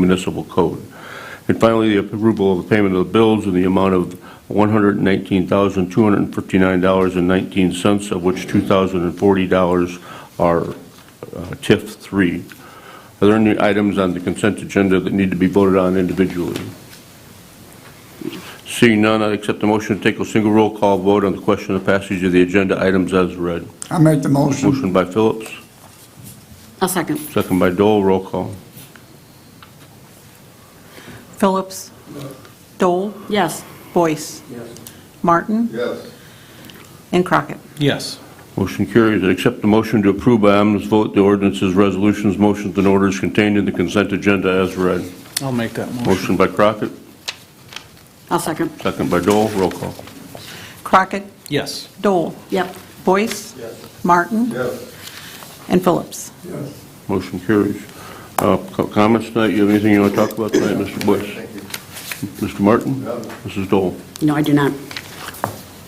municipal code. And finally, the approval of the payment of the bills in the amount of $119,259.19, of which $2,040 are uh, TIF 3. Are there any items on the consent agenda that need to be voted on individually? Seeing none, I accept the motion to take a single roll call vote on the question of passage of the agenda items as read. I make the motion. Motion by Phillips, I'll second. second by Dole, roll call. Phillips. Dole. Yes. Boyce. Martin. Yes. And Crockett. Yes. Motion carries. I accept the motion to approve by unanimous vote the ordinances, resolutions, motions, and orders contained in the consent agenda as read. I'll make that motion. Motion by Crockett, I'll second. second by Dole, roll call. Crockett. Yes. Dole. Yep. Boyce. Martin. Yes. And Phillips. Motion carries. Uh, co- Comments tonight? You have anything you want to talk about tonight, Mr. Boyce? Thank you. Mr. Martin? No. Mrs. Dole? No, I do not.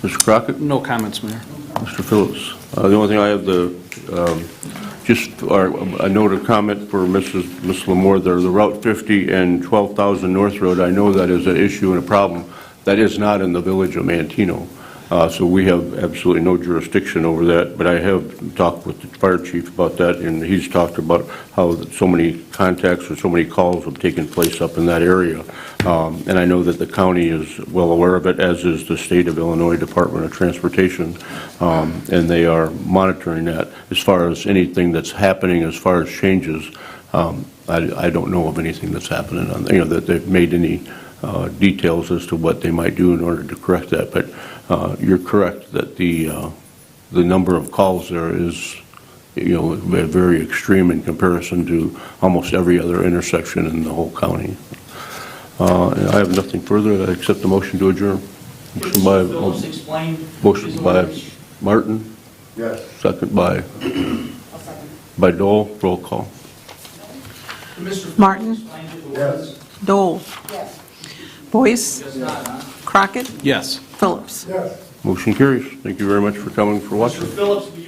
Mr. Crockett? No comments, Mayor. Mr. Phillips. Uh, The only thing I have the, um, just, or a note of comment for Mrs. Ms. Lamore, there, the Route 50 and 12,000 North Road, I know that is an issue and a problem. That is not in the village of Mantino, Uh, so we have absolutely no jurisdiction over that, but I have talked with the fire chief about that, and he's talked about how that so many contacts or so many calls have taken place up in that area. Um, And I know that the county is well aware of it, as is the state of Illinois Department of Transportation, um, and they are monitoring that. As far as anything that's happening, as far as changes, um, I I don't know of anything that's happening, on you know, that they've made any uh, details as to what they might do in order to correct that. But uh, you're correct that the, uh, the number of calls there is, you know, very extreme in comparison to almost every other intersection in the whole county. Uh, and I have nothing further, I accept the motion to adjourn. Motion Phillips by, explained. motion by Martin, Yes. second by, by Dole, roll call. Martin. Yes. Dole. Boyce. Crockett. Yes. Phillips. Yes. Motion carries. Thank you very much for coming, for watching. Mr. Phillips, you